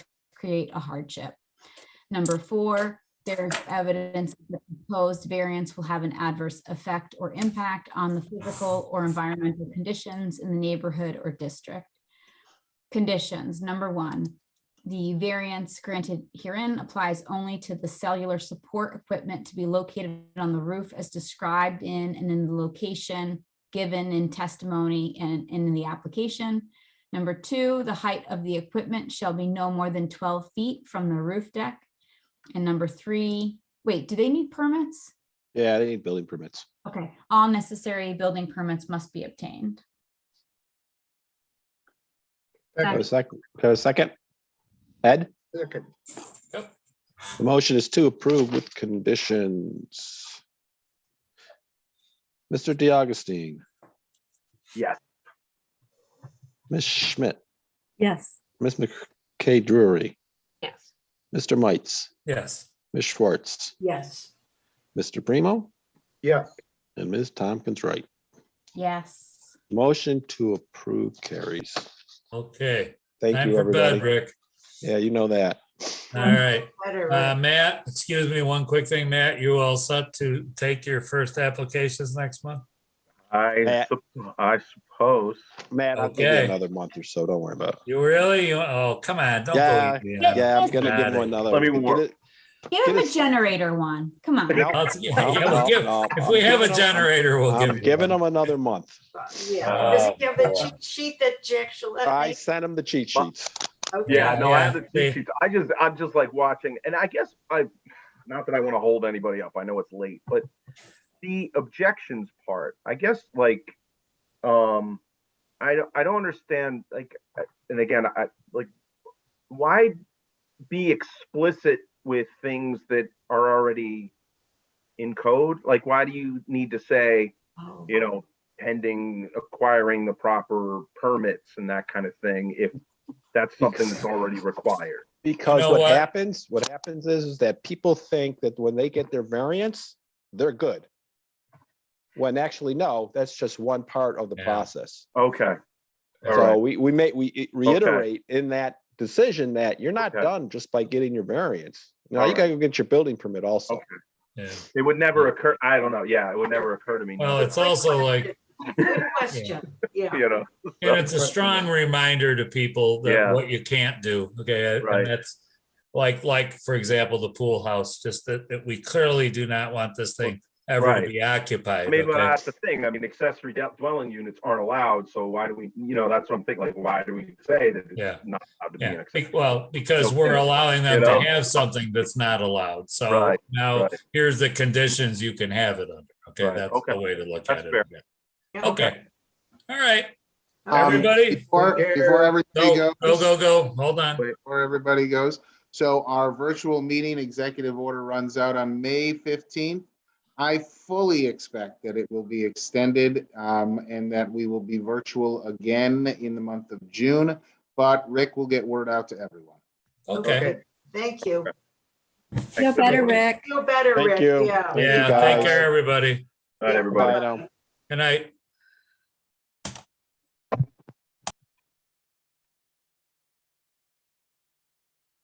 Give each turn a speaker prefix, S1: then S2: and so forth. S1: create a hardship. Number four, there is evidence that the proposed variance will have an adverse effect or impact on the physical or environmental conditions in the neighborhood or district. Conditions, number one, the variance granted herein applies only to the cellular support equipment to be located on the roof as described in and in the location given in testimony and and in the application. Number two, the height of the equipment shall be no more than twelve feet from the roof deck. And number three, wait, do they need permits?
S2: Yeah, they need building permits.
S1: Okay, all necessary building permits must be obtained.
S2: Can I
S1: Second.
S2: have a sec- can I have a second? Ed,
S3: Second,
S2: the motion is to approve with conditions. Mr. DiAugustine.
S3: Yes.
S2: Ms. Schmidt,
S4: Yes.
S2: Ms. McKay Drury,
S5: Yes.
S2: Mr. Mites,
S6: yes,
S2: Ms. Schwartz,
S4: Yes.
S2: Mr. Primo,
S3: yes,
S2: and Ms. Tompkins Wright.
S1: Yes.
S2: Motion to approve carries.
S6: okay.
S2: Thank
S6: Time
S2: you,
S6: for bed,
S2: everybody.
S6: Rick.
S2: Yeah, you know that.
S6: All right,
S4: Better,
S6: uh,
S4: right?
S6: Matt, excuse me, one quick thing, Matt, you all set to take your first applications next month?
S3: I,
S2: Matt.
S3: sup- I suppose.
S2: Matt, I'll give you
S6: Okay.
S2: another month or so. Don't worry about it.
S6: You really, You- oh, come on, don't
S2: Yeah,
S6: go. yeah.
S2: Yeah, I'm gonna give
S6: Got
S2: him
S6: it.
S2: another.
S3: Let me
S2: get
S3: work.
S2: it-
S1: Give him a
S2: Yes.
S1: generator one. Come on.
S2: No,
S6: I'll- yeah,
S2: no,
S6: yeah, we'll
S2: no,
S6: give-
S2: no,
S6: If
S2: I'm
S6: we have a
S2: giving 'em-
S6: generator, we'll give.
S2: I'm
S6: you
S2: giving
S6: one.
S2: him another month.
S4: Yeah.
S6: Uh,
S4: Does he have the cheat sheet that Jack
S2: I
S4: Gillette?
S2: sent him the cheat sheets.
S4: Okay.
S3: Yeah, no, I
S6: yeah,
S3: have the
S6: they-
S3: cheat sheets. I just, I'm just like watching, and I guess I, not that I want to hold anybody up. I know it's late, but the objections part, I guess, like, um, I don't, I don't understand, like, I- and again, I like, why be explicit with things that are already in code? Like, why do you need to say?
S4: Oh.
S3: you know, pending acquiring the proper permits and that kind of thing, if that's something that's already required.
S2: Because
S6: know
S2: what
S6: what?
S2: happens, what happens is, is that people think that when they get their variance, they're good. When actually, no, that's just one part of the
S6: Yeah.
S2: process.
S3: Okay, all
S2: So
S3: right,
S2: we, we may, we reiterate in that decision that you're not
S3: Okay.
S2: done just by getting your variance. No,
S3: All
S2: you
S3: right.
S2: gotta go get your building permit also.
S3: Okay.
S6: Yeah.
S3: it would never occur, I don't know, yeah, it would never occur to me.
S6: Well,
S3: not
S6: it's also like,
S4: Good question,
S3: to,
S4: yeah.
S3: You know,
S6: and it's a strong reminder to people
S3: Yeah.
S6: that what you can't do, okay?
S3: Right.
S6: And that's like, like, for example, the pool house, just that, that we clearly do not want this thing ever to
S3: Right.
S6: be occupied.
S3: I mean, but
S6: okay?
S3: that's the thing, I mean, accessory de- dwelling units aren't allowed, so why do we, you know, that's what I'm thinking, like, why do we say that
S6: Yeah.
S3: it's not allowed to be an
S6: Yeah,
S3: accessory?
S6: be- well, because we're
S3: Okay.
S6: allowing them
S3: You
S6: to
S3: know?
S6: have something that's not allowed. So
S3: Right,
S6: now
S3: right.
S6: here's the conditions you can have it under. Okay,
S3: Right,
S6: that's
S3: okay.
S6: the way to look
S3: That's
S6: at it.
S3: fair.
S4: Yeah.
S6: Okay. All right,
S7: Um,
S6: everybody.
S7: Before,
S3: Take care.
S7: before everybody
S6: Go, go,
S7: goes.
S6: go, go. Hold on.
S7: Before everybody goes. So our virtual meeting executive order runs out on May 15th. I fully expect that it will be extended um, and that we will be virtual again in the month of June. But Rick will get word out to everyone.
S6: Okay.
S4: Thank you.
S5: Feel better,
S3: All
S5: Rick.
S4: Feel better,
S2: Thank
S4: Rick,
S2: you.
S4: yeah.
S6: Yeah,
S2: guys.
S6: take care, everybody.
S2: um,
S3: right, everybody.
S2: Bye now.
S6: Good night.